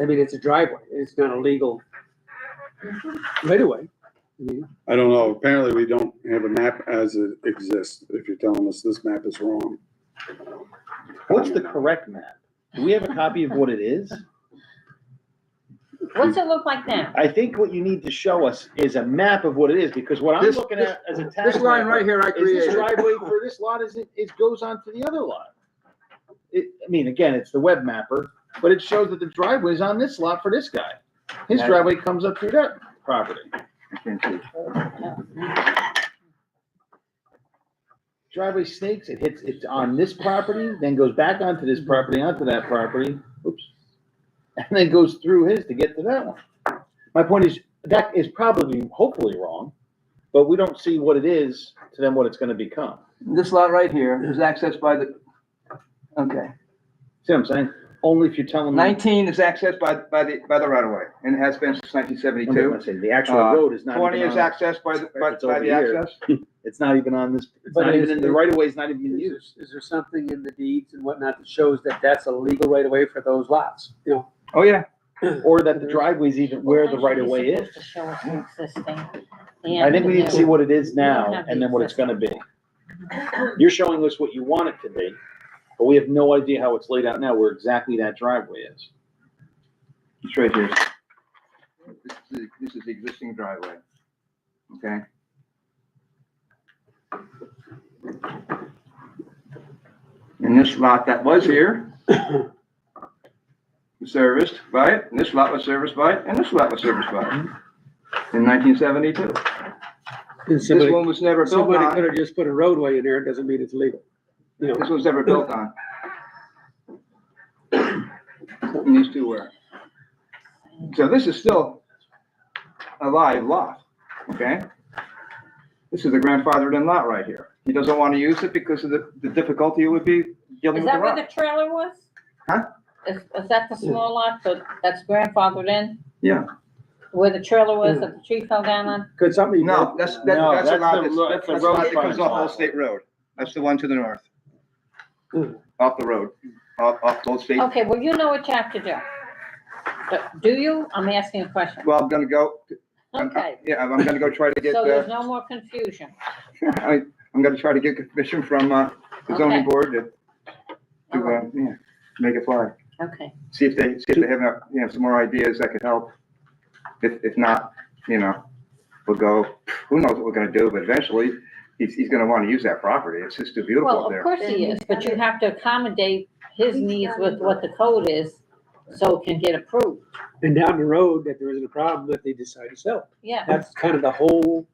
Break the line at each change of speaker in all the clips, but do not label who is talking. I mean, it's a driveway, it's not a legal right of way. I mean,
I don't know, apparently we don't have a map as it exists, if you're telling us this map is wrong.
What's the correct map? Do we have a copy of what it is?
What's it look like now?
I think what you need to show us is a map of what it is, because what I'm
This-
looking
this-
at as a tax.
This line
map
right here, I
Is this
created.
driveway for this lot, is it, it goes on to the other lot? It, I mean, again, it's the web mapper, but it shows that the driveway is on this lot for this guy. His
Yeah.
driveway comes up through that property. Driveway snakes, it hits, it's on this property, then goes back onto this property, onto that property, oops. And then goes through his to get to that one. My point is, that is probably, hopefully wrong, but we don't see what it is to then what it's gonna become.
This lot right here is accessed by the, okay,
Mm-hmm. See what I'm saying? Only if you're telling me.
nineteen is accessed by, by the, by the right of way, and has been since nineteen
I'm just
seventy-two.
gonna say, The actual
Uh,
road is not.
Twenty
even
is
on-
accessed by, the by,
It's
by
over
the
here.
access.
It's not even on this, it's
But
not
it
even
is-
in the right of way, it's not even in
Is
use.
there- is there something in the deeds and whatnot that shows that that's a legal right of way for those lots? You know,
Oh, yeah.
Or that the driveway's even where the right of way is. I think we need to see what it is now and then what it's gonna be. You're showing us what you want it to be, but we have no idea how it's laid out now, where exactly that driveway is.
It's right here. This is, the- this is the existing driveway. Okay? And this lot that was here was serviced by it, and this lot was serviced by it, and this lot was serviced by it in nineteen seventy-two.
and
This
somebody,
one was never built
somebody could
on.
have just put a roadway in there, it doesn't mean it's legal. You know,
This was never built on. And these two were. So this is still a live lot, okay? This is the grandfathered in lot right here. He doesn't want to use it because of the, the difficulty it would be dealing
Is
with the
that where
rock.
the trailer was?
Huh?
Is, is that the small lot that, that's grandfathered in?
Yeah.
Where the trailer was that the tree fell down on?
could somebody?
No, that's, that-
No,
that's a
that's the
lot,
ro-
that's, that's
the
a lot
road
that comes
frontage
off
lot.
Old State Road. That's the one to the north.
Hmm.
Mm.
Off the road, off, off Old State.
Okay, well, you know what you have to do. But do you? I'm asking a question.
Well, I'm gonna go, I'm-
Okay,
yeah, I'm gonna go try to get,
so
uh,
there's no more confusion.
I, I'm gonna try to get permission from, uh, the zoning
Okay.
board to,
All
to, uh,
right,
yeah, make it fly.
Okay,
See if they, see if they have, uh, you know, some more ideas that could help. If, if not, you know, we'll go, who knows what we're gonna do, but eventually, he's, he's gonna wanna use that property. It's just too beautiful
well,
up
of
there.
course he is, but you have to accommodate his needs with what the code is, so it can get approved.
And down the road, that there isn't a problem if they decide to sell.
Yeah,
That's kind of the whole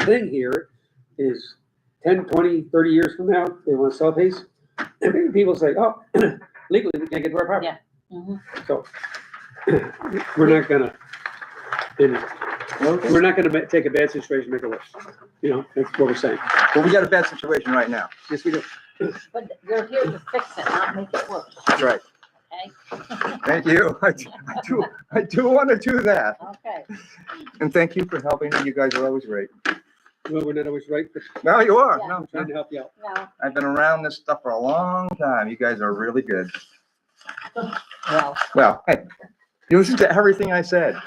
thing here is 10, 20, 30 years from now, they want to sell these. And maybe people say, oh, legally, we can't get to our property.
mhm.
So we're not gonna, you know, we're not gonna ma- take a bad situation, and make it worse. You know, that's what we're saying.
Well, we got a bad situation right now.
Yes, we do.
but you're here to fix it, not make it worse,
That's right.
okay?
Thank you. I do- I do, I do wanna do that.
Okay,
And thank you for helping. You guys are always great.
Well, we're not always right, but
No, you are.
Yeah.
No,
trying to help you out.
now,
I've been around this stuff for a long time. You guys are really good.
well.
Well, hey, you listen to everything I said.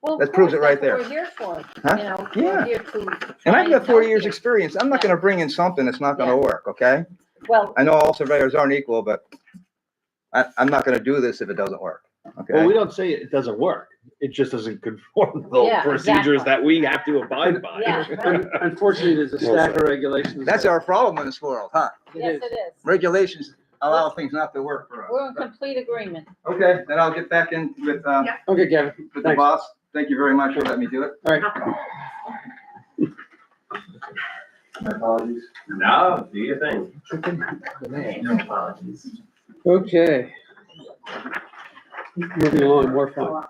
well, of
That
course,
proves it right
that's what We're here for,
Huh?
you know.
Yeah.
we're here to
And
try
I've got
help
forty years'
you.
experience. I'm not gonna bring in something that's not gonna
Yeah.
work, okay?
Well,
I know all surveyors aren't equal, but I, I'm not gonna do this if it doesn't work,
Well, we
okay?
don't say it doesn't work. It just doesn't conform to the
Yeah,
procedures
exactly.
that we have to abide by.
yeah, right.
Un- Unfortunately, there's a stack of regulations.
That's our problem in this world, huh?
yes, it is.
Regulations allow things not to work for
We're in
us.
complete agreement.
Okay, then I'll get back in with, uh,
Okay, Kevin.
with the
Thanks.
boss. Thank you very much for letting me do it.
All right.
My apologies.
No, do your thing.
Okay. Moving along, more fun.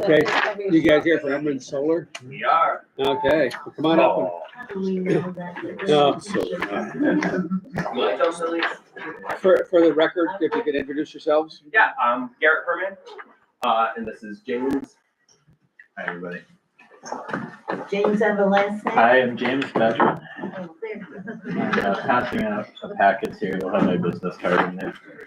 Okay, You guys here for Emerald Solar?
We are. Oh,
Okay, well, come on up. and- uh,
Like those at least?
For, for the record, if you could introduce yourselves.
Yeah, I'm Garrett Herman, uh, and this is James. Hi, everybody.
James and the last name.
Hi, I'm James Badger. I'm uh, passing out a packets here. You'll have my business card in there.